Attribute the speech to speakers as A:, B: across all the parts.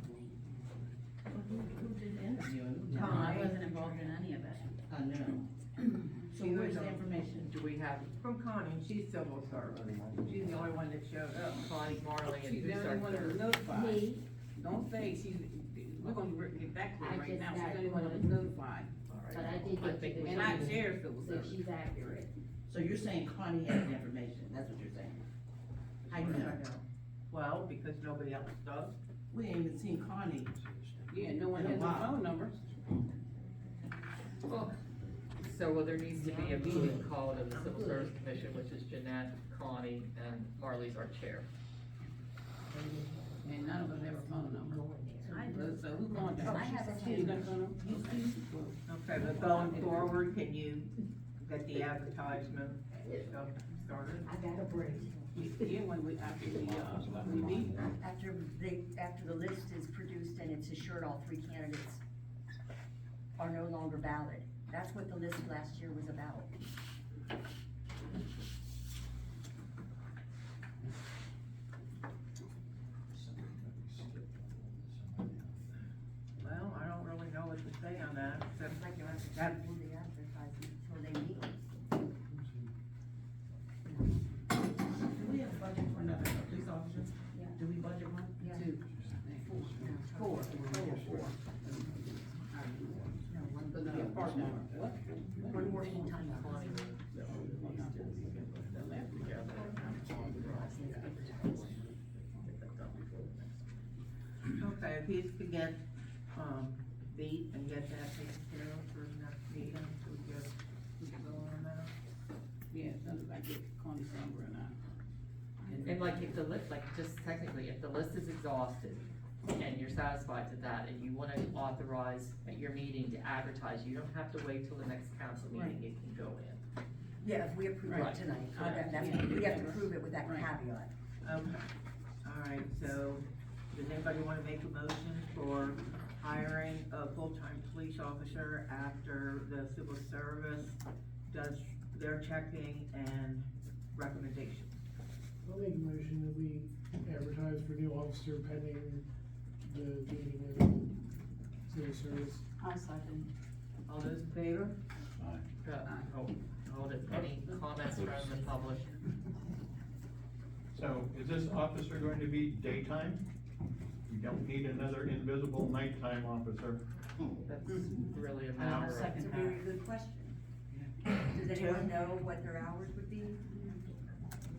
A: uh,
B: have from Connie, she's civil servant. She's the only one that showed up, Connie Marley and
C: She's the
B: who
C: only
B: started
C: one that was
B: there.
C: notified.
D: Me,
C: Don't say she's, we're gonna re- get back to
D: I
C: it right
D: just
C: now. She's
D: got
C: the only one that was notified.
D: but I did
B: I
D: get
B: think
D: you
B: we
D: the
C: And I
D: email,
C: share civil
D: so
C: service.
D: she's accurate.
A: So you're saying Connie has the information, that's what you're saying? How you know?
B: Well, because nobody else does.
A: We ain't even seen Connie.
C: Yeah, no one has her
A: Wow.
C: phone number.
E: So, well, there needs to be a meeting called of the Civil Service Commission, which is Jeanette, Connie, and Marley's our chair.
C: And none of us have a phone number. So who's going to?
D: I have a
C: She's gonna phone number?
B: Okay, but going forward, can you get the advertisement stuff started?
D: I got a break.
C: Yeah, when we, after the, uh, we meet.
F: After they, after the list is produced and it's assured all three candidates are no longer valid. That's what the list last year was about.
B: Well, I don't really know what to say on that, except
F: Like you have to
B: that,
F: do the advertising until they meet.
A: Do we have a budget for another police officer?
F: Yeah.
A: Do we budget one?
F: Yeah.
C: Two.
F: Four. No,
C: It's
F: one,
C: gonna be a part number. What?
F: one more full time.
B: okay, if he's to get, um, beat and get that taken care of for next meeting, so we get, we can go on that.
C: Yeah, as soon as I get Connie's number and I.
E: And like, if the list, like, just technically, if the list is exhausted, and you're satisfied with that, and you wanna authorize at your meeting to advertise, you don't have to wait till the next council meeting, it can go in.
F: Yeah, if we approve it
E: Right.
F: tonight, uh,
C: Right.
F: that- that's,
C: Yeah.
F: we have to prove it with that
C: Right.
F: caveat.
B: Okay, all right, so, does anybody wanna make a motion for hiring a full-time police officer after the civil service does their checking and recommendations?
G: I'll make a motion that we advertise for new officer pending the meeting of civil service.
C: I'll second.
B: All those in favor?
E: Uh, hold- Hold it, any comments from the public?
H: So is this officer going to be daytime? We don't need another invisible nighttime officer.
E: That's really a
C: I'll
E: matter of.
F: It's a
C: second
F: very
C: that.
F: good question. Does anyone know what their hours would be?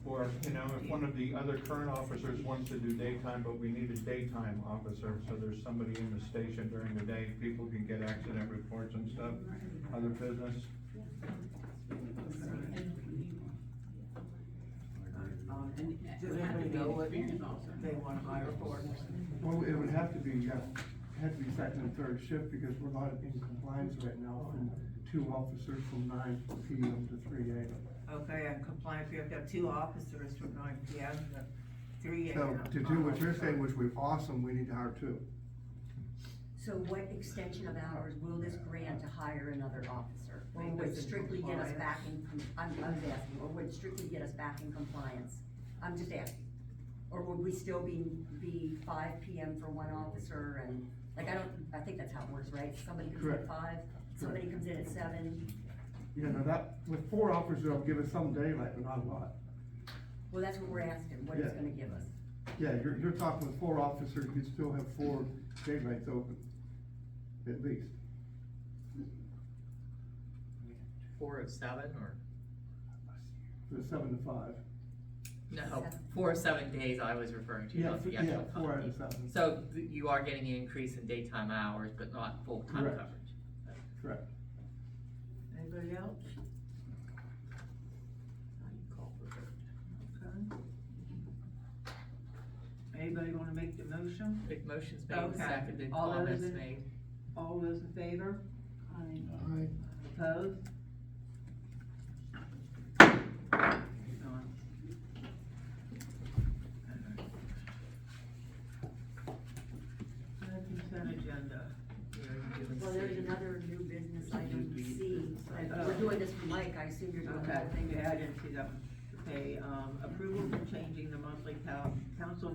H: Or, you know, if one of the other current officers wants to do daytime, but we need a daytime officer, so there's somebody in the station during the day, people can get accident reports and stuff, other business.
C: Um, and it
B: Do they
C: doesn't have to be
B: know
C: an
B: what-
C: experienced officer.
B: They wanna hire for it.
I: Well, it would have to be, uh, had to be second and third shift because we're not in compliance right now from two officers from nine PM to three AM.
B: Okay, and compliance, we have to have two officers from nine PM to three
I: So
B: AM.
I: to do what you're saying, which would be awesome, we need to hire two.
F: So what extension of hours will this grant to hire another officer? Or would strictly get us back in, com- I'm, I was asking, or would strictly get us back in compliance? I'm just asking. Or would we still be, be five PM for one officer and, like, I don't, I think that's how it works, right? Somebody comes in at
I: Correct.
F: five, somebody comes in at seven.
I: You know, that, with four officers, it'll give us some daylight, but not a lot.
F: Well, that's what we're asking, what it's
I: Yeah.
F: gonna give us.
I: Yeah, you're, you're talking with four officers, you still have four daylights open, at least.
E: Four of seven, or?
I: For seven to five.
E: No, four of seven days I was referring to, not the
I: Yeah,
E: actual
I: yeah, four out
E: company.
I: of seven.
E: So th- you are getting an increase in daytime hours, but not full-time
I: Correct.
E: coverage.
I: Correct.
B: Anybody else? Okay. Anybody wanna make the motion?
E: Big motion's made,
B: Okay.
E: seconded,
B: All those
E: comments
B: in-
E: made.
B: All those in favor?
C: I-
G: Aye.
B: Opposed? Consent agenda.
F: Well, there's another new business item C. And We're doing this for Mike, I assume you're doing
B: Okay,
F: that thing.
B: yeah, I didn't see that. one. Okay, um, approval for changing the monthly coun- council